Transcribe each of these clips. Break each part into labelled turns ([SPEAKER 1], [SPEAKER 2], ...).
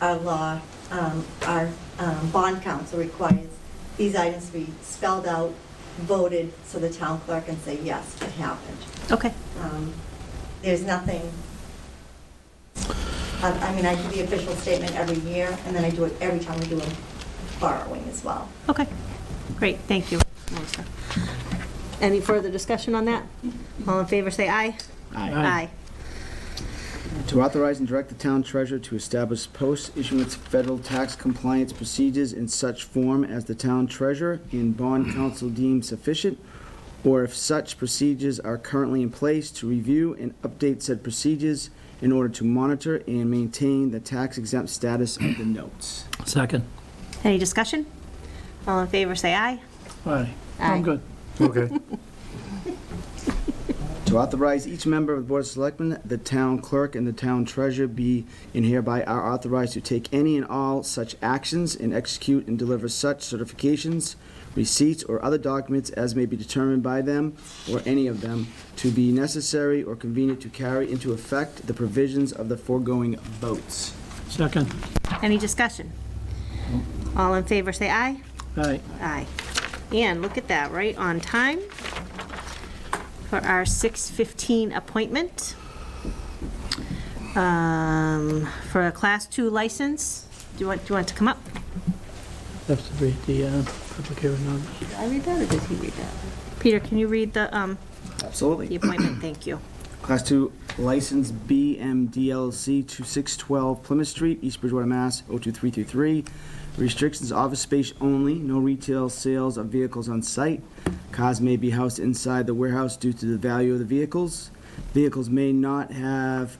[SPEAKER 1] our law, um, our um, bond council requires these items to be spelled out, voted, so the town clerk can say, yes, it happened.
[SPEAKER 2] Okay.
[SPEAKER 1] Um, There's nothing, I I mean, I do the official statement every year, and then I do it every time we do a borrowing as well.
[SPEAKER 2] Okay, great, thank you, Melissa. Any further discussion on that? All in favor, say aye.
[SPEAKER 3] Aye. To authorize and direct the town treasurer to establish post-issuance federal tax compliance procedures in such form as the town treasurer and bond council deem sufficient, or if such procedures are currently in place, to review and update said procedures in order to monitor and maintain the tax exempt status of the notes.
[SPEAKER 4] Second.
[SPEAKER 2] Any discussion? All in favor, say aye.
[SPEAKER 4] Aye.
[SPEAKER 2] Aye.
[SPEAKER 4] I'm good.
[SPEAKER 5] Okay.
[SPEAKER 3] To authorize each member of the Board of Selectmen, the town clerk, and the town treasurer be and hereby are authorized to take any and all such actions and execute and deliver such certifications, receipts, or other documents as may be determined by them or any of them to be necessary or convenient to carry into effect the provisions of the foregoing votes.
[SPEAKER 4] Second.
[SPEAKER 2] Any discussion? All in favor, say aye.
[SPEAKER 4] Aye.
[SPEAKER 2] Aye. And look at that, right on time for our 6:15 appointment um, for a Class II license. Do you want, do you want it to come up?
[SPEAKER 4] Have to read the uh, public hearing notice.
[SPEAKER 2] Did I read that, or did he read that? Peter, can you read the, um, the
[SPEAKER 3] Absolutely.
[SPEAKER 2] appointment? Thank you.
[SPEAKER 3] Class 2 license BMDLC 2612 Plymouth Street, East Bridgewater, Mass. 02333. Restrictions, office space only, no retail sales of vehicles on site. Cars may be housed inside the warehouse due to the value of the vehicles. Vehicles may not have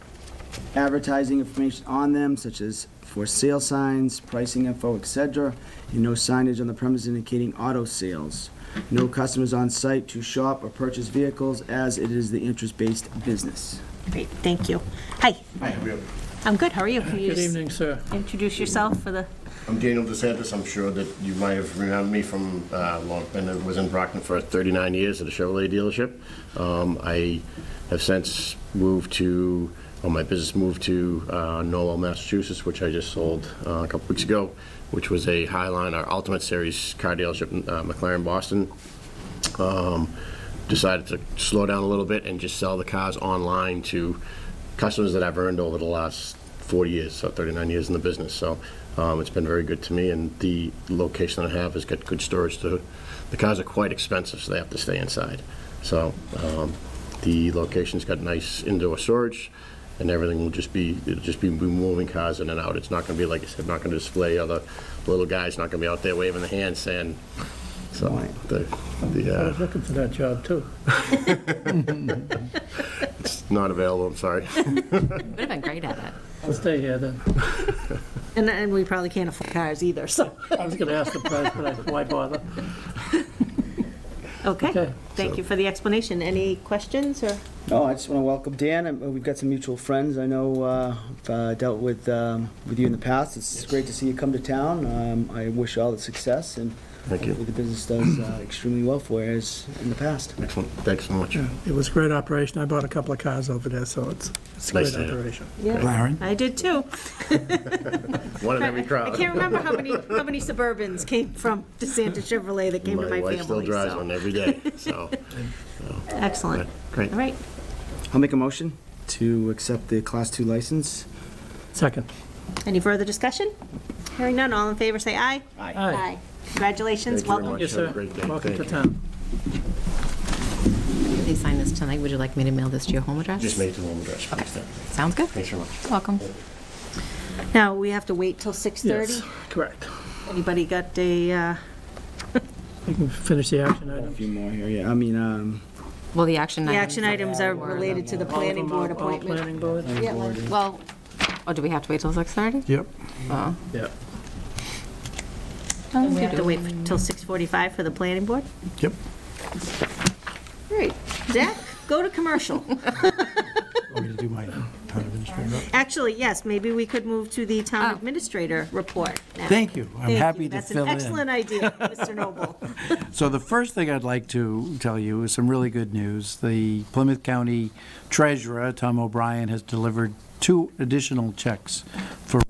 [SPEAKER 3] advertising information on them such as for sale signs, pricing info, etc., and no signage on the premise indicating auto sales. No customers on site to shop or purchase vehicles as it is the interest-based business.
[SPEAKER 2] Great, thank you. Hi,
[SPEAKER 6] Hi, how are you?
[SPEAKER 2] I'm good, how are you? Can you
[SPEAKER 4] Good
[SPEAKER 2] just
[SPEAKER 4] evening, sir.
[SPEAKER 2] introduce yourself for the,
[SPEAKER 6] I'm Daniel DeSantis. I'm sure that you might have remembered me from uh, long, been, I was in Brockton for 39 years at a Chevrolet dealership. Um, I have since moved to, or my business moved to uh, Norwell, Massachusetts, which I just sold uh, a couple weeks ago, which was a Highline, our Ultimate Series car dealership in uh, McLaren, Boston. um, decided to slow down a little bit and just sell the cars online to customers that I've earned over the last 40 years, so 39 years in the business. So um, it's been very good to me, and the location I have has got good storage. To, the cars are quite expensive, so they have to stay inside. So um, the location's got nice indoor storage, and everything will just be, it'll just be moving cars in and out. It's not going to be, like I said, not going to display other little guys, not going to be out there waving the hand saying, so the, the,
[SPEAKER 4] I
[SPEAKER 6] uh,
[SPEAKER 4] was looking for that job, too.
[SPEAKER 6] Not available, I'm sorry.
[SPEAKER 7] Would have been great at it.
[SPEAKER 4] I'll stay here then.
[SPEAKER 2] and, and we probably can't afford cars either, so,
[SPEAKER 4] I was going to ask the price, but I, why bother?
[SPEAKER 2] okay.
[SPEAKER 4] Okay.
[SPEAKER 2] Thank you for the explanation. Any questions, or?
[SPEAKER 3] No, Oh, I just want to welcome Dan. and We've got some mutual friends. I know uh, I've uh, dealt with, um, with you in the past. It's great to see you come to town. Um, I wish you all the success, and
[SPEAKER 6] Thank you.
[SPEAKER 3] hopefully the business does uh, extremely well for you as in the past.
[SPEAKER 6] Excellent, thanks so much.
[SPEAKER 8] It was a great operation. I bought a couple of cars over there, so it's, it's a
[SPEAKER 6] Nice
[SPEAKER 8] great
[SPEAKER 6] to have.
[SPEAKER 8] operation.
[SPEAKER 6] Mm-hmm.
[SPEAKER 5] Larry?
[SPEAKER 2] I did too.
[SPEAKER 6] One in every
[SPEAKER 2] I
[SPEAKER 6] crowd.
[SPEAKER 2] can't remember how many, how many Suburbans came from DeSanta Chevrolet that came to
[SPEAKER 6] My
[SPEAKER 2] my
[SPEAKER 6] wife still
[SPEAKER 2] family,
[SPEAKER 6] drives one
[SPEAKER 2] so.
[SPEAKER 6] every day, so,
[SPEAKER 2] Excellent.
[SPEAKER 6] great.
[SPEAKER 2] All right,
[SPEAKER 3] I'll make a motion to accept the Class 2 license.
[SPEAKER 4] Second.
[SPEAKER 2] any further discussion? Hearing none, all in favor, say aye.
[SPEAKER 4] Aye.
[SPEAKER 2] Congratulations,
[SPEAKER 6] Thank you very
[SPEAKER 2] welcome.
[SPEAKER 6] much.
[SPEAKER 4] Yes,
[SPEAKER 6] Have a
[SPEAKER 4] sir.
[SPEAKER 6] great day.
[SPEAKER 4] Welcome
[SPEAKER 6] Thank
[SPEAKER 4] to
[SPEAKER 6] you.
[SPEAKER 4] town.
[SPEAKER 7] If you sign this tonight, would you like me to mail this to your home address?
[SPEAKER 6] Just made the home address, please, thank you.
[SPEAKER 7] Sounds good.
[SPEAKER 6] Thanks very much.
[SPEAKER 7] Welcome.
[SPEAKER 2] Now, we have to wait till 6:30?
[SPEAKER 4] Yes, correct.
[SPEAKER 2] Anybody got a, uh,
[SPEAKER 4] You can finish the action
[SPEAKER 3] A
[SPEAKER 4] item.
[SPEAKER 3] few more here, yeah. I mean, um,
[SPEAKER 7] Well, the action
[SPEAKER 2] the
[SPEAKER 7] items.
[SPEAKER 2] action items are related to the planning board appointment.
[SPEAKER 4] Planning board?
[SPEAKER 3] planning board.
[SPEAKER 7] Well, oh, do we have to wait till 6:30?
[SPEAKER 5] Yep.
[SPEAKER 7] Oh.
[SPEAKER 4] Yeah.
[SPEAKER 2] And We have to wait for- till 6:45 for the planning board?
[SPEAKER 5] Yep.
[SPEAKER 2] All right, Zach, go to commercial.
[SPEAKER 5] Want me to do my town administrator?
[SPEAKER 2] Actually, yes, maybe we could move to the town administrator report now.
[SPEAKER 5] Thank you. I'm
[SPEAKER 2] Thank
[SPEAKER 5] happy
[SPEAKER 2] you.
[SPEAKER 5] to fill in.
[SPEAKER 2] That's an excellent idea, Mr. Noble.
[SPEAKER 5] So the first thing I'd like to tell you is some really good news. The Plymouth County Treasurer, Tom O'Brien, has delivered two additional checks for